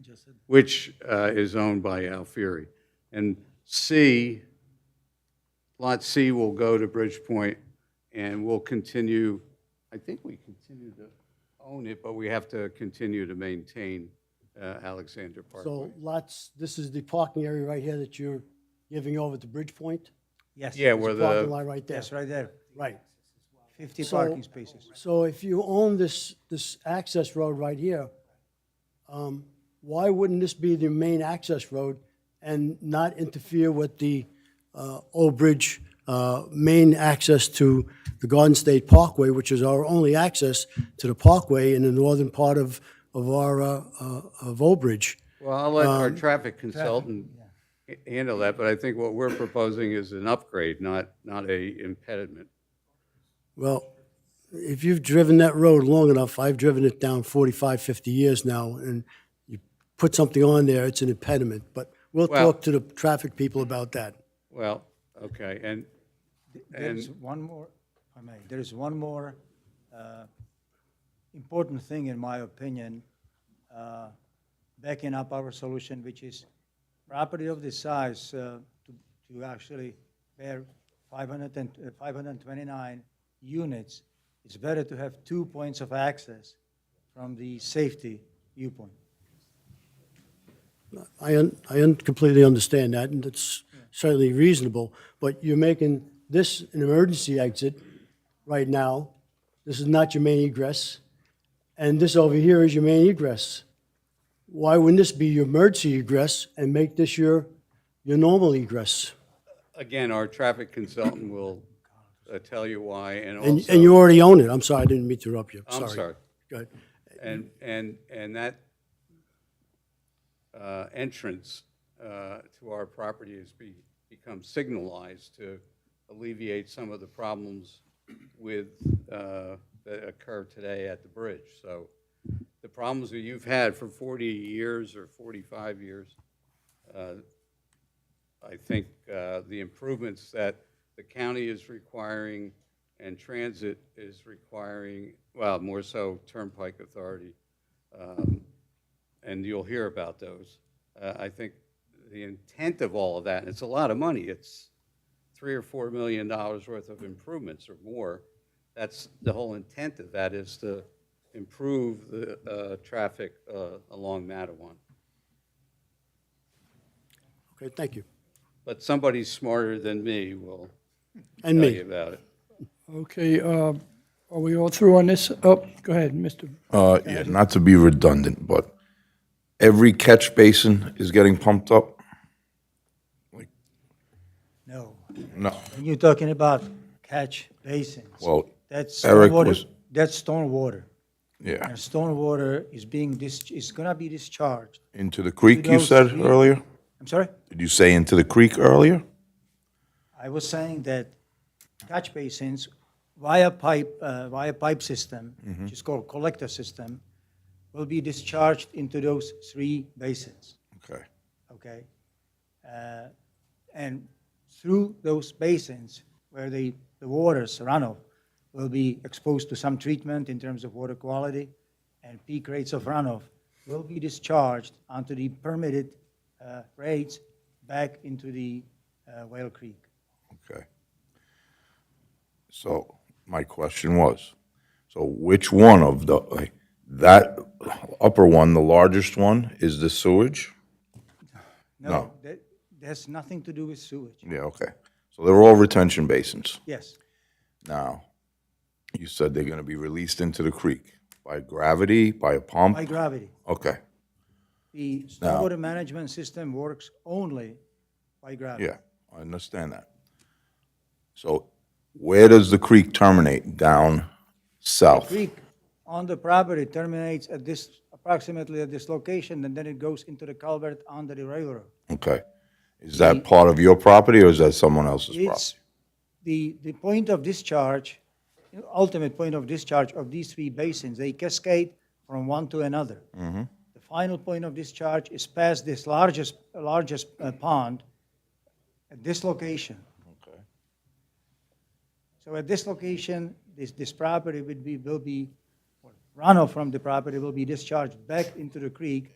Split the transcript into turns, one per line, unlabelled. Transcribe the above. just said.
which uh, is owned by Alfieri. And C, Lot C will go to Bridgepoint, and we'll continue, I think we continue to own it, but we have to continue to maintain uh, Alexander Parkway.
So lots, this is the parking area right here that you're giving over to Bridgepoint?
Yes.
Yeah, where
Parking
the,
lot right there,
Yes, right there.
right.
50
So-
parking spaces.
So if you own this, this access road right here, um, why wouldn't this be the main access road and not interfere with the uh, Old Bridge uh, main access to the Garden State Parkway, which is our only access to the parkway in the northern part of, of our, uh, uh, of Old Bridge?
well, I'll let
um,
our traffic consultant h- handle that, but I think what we're proposing is an upgrade, not, not a impediment.
Well, if you've driven that road long enough, I've driven it down 45, 50 years now, and you put something on there, it's an impediment. But we'll
Well-
talk to the traffic people about that.
Well, okay, and
There's one more, if I may, there's one more uh, important thing, in my opinion, uh, backing up our solution, which is property of this size uh, to to actually bear 500 and- uh, 529 units, it's better to have two points of access from the safety viewpoint.
I, un- I un- completely understand that, and it's certainly reasonable, but you're making this an emergency exit right now. This is not your main egress, and this over here is your main egress. Why wouldn't this be your emergency egress and make this your, your normal egress?
Again, our traffic consultant will uh, tell you why, and
And, and you
also,
already own it. I'm sorry, I didn't mean to interrupt you.
Oh, I'm sorry,
Go ahead.
and, and, and that uh, entrance uh, to our property has be, become signalized to alleviate some of the problems with, uh, that occur today at the bridge. So the problems that you've had for 40 years or 45 years, uh, I think uh, the improvements that the county is requiring and transit is requiring, well, more so Turnpike Authority, um, and you'll hear about those. Uh, I think the intent of all of that, and it's a lot of money, it's three or four million dollars worth of improvements or more. That's, the whole intent of that is to improve the uh, traffic uh, along Mattawan.
Okay, thank you.
But somebody smarter than me will
And
tell
me.
you about it.
Okay, uh, are we all through on this? Oh, go ahead, Mr.
Uh, yeah, not to be redundant, but every catch basin is getting pumped up?
No.
No.
And you're talking about catch basins.
Well,
That's
Eric
stormwater,
was-
that's stormwater.
yeah.
And stormwater is being dis, is gonna be discharged.
Into the creek, you
those
said
three-
earlier?
I'm sorry?
Did you say into the creek earlier?
I was saying that catch basins via pipe, uh, via pipe system,
Mm-hmm.
which is called collector system, will be discharged into those three basins,
Okay.
okay? Uh, And through those basins where the, the waters runoff will be exposed to some treatment in terms of water quality and peak rates of runoff will be discharged onto the permitted uh, rates back into the uh, Whale Creek.
Okay. So my question was, so which one of the, like, that upper one, the largest one, is the sewage?
No,
No. Mm.
that, that's nothing to do with sewage.
Yeah, okay. So they're all retention basins.
Yes,
Now, you said they're gonna be released into the creek by gravity, by a
by
pump?
gravity.
Okay,
The stormwater management system works only by gravity.
yeah, I understand that. So where does the creek terminate? Down south?
Creek on the property terminates at this, approximately at this location, and then it goes into the culvert under the railroad.
Okay. Is that part of your property or is that someone else's property?
It's, the, the point of discharge, ultimate point of discharge of these three basins, they cascade from one to another. The final point of discharge is past this largest, largest uh, pond at this location. So at this location, this, this property would be, will be, runoff from the property will be discharged back into the creek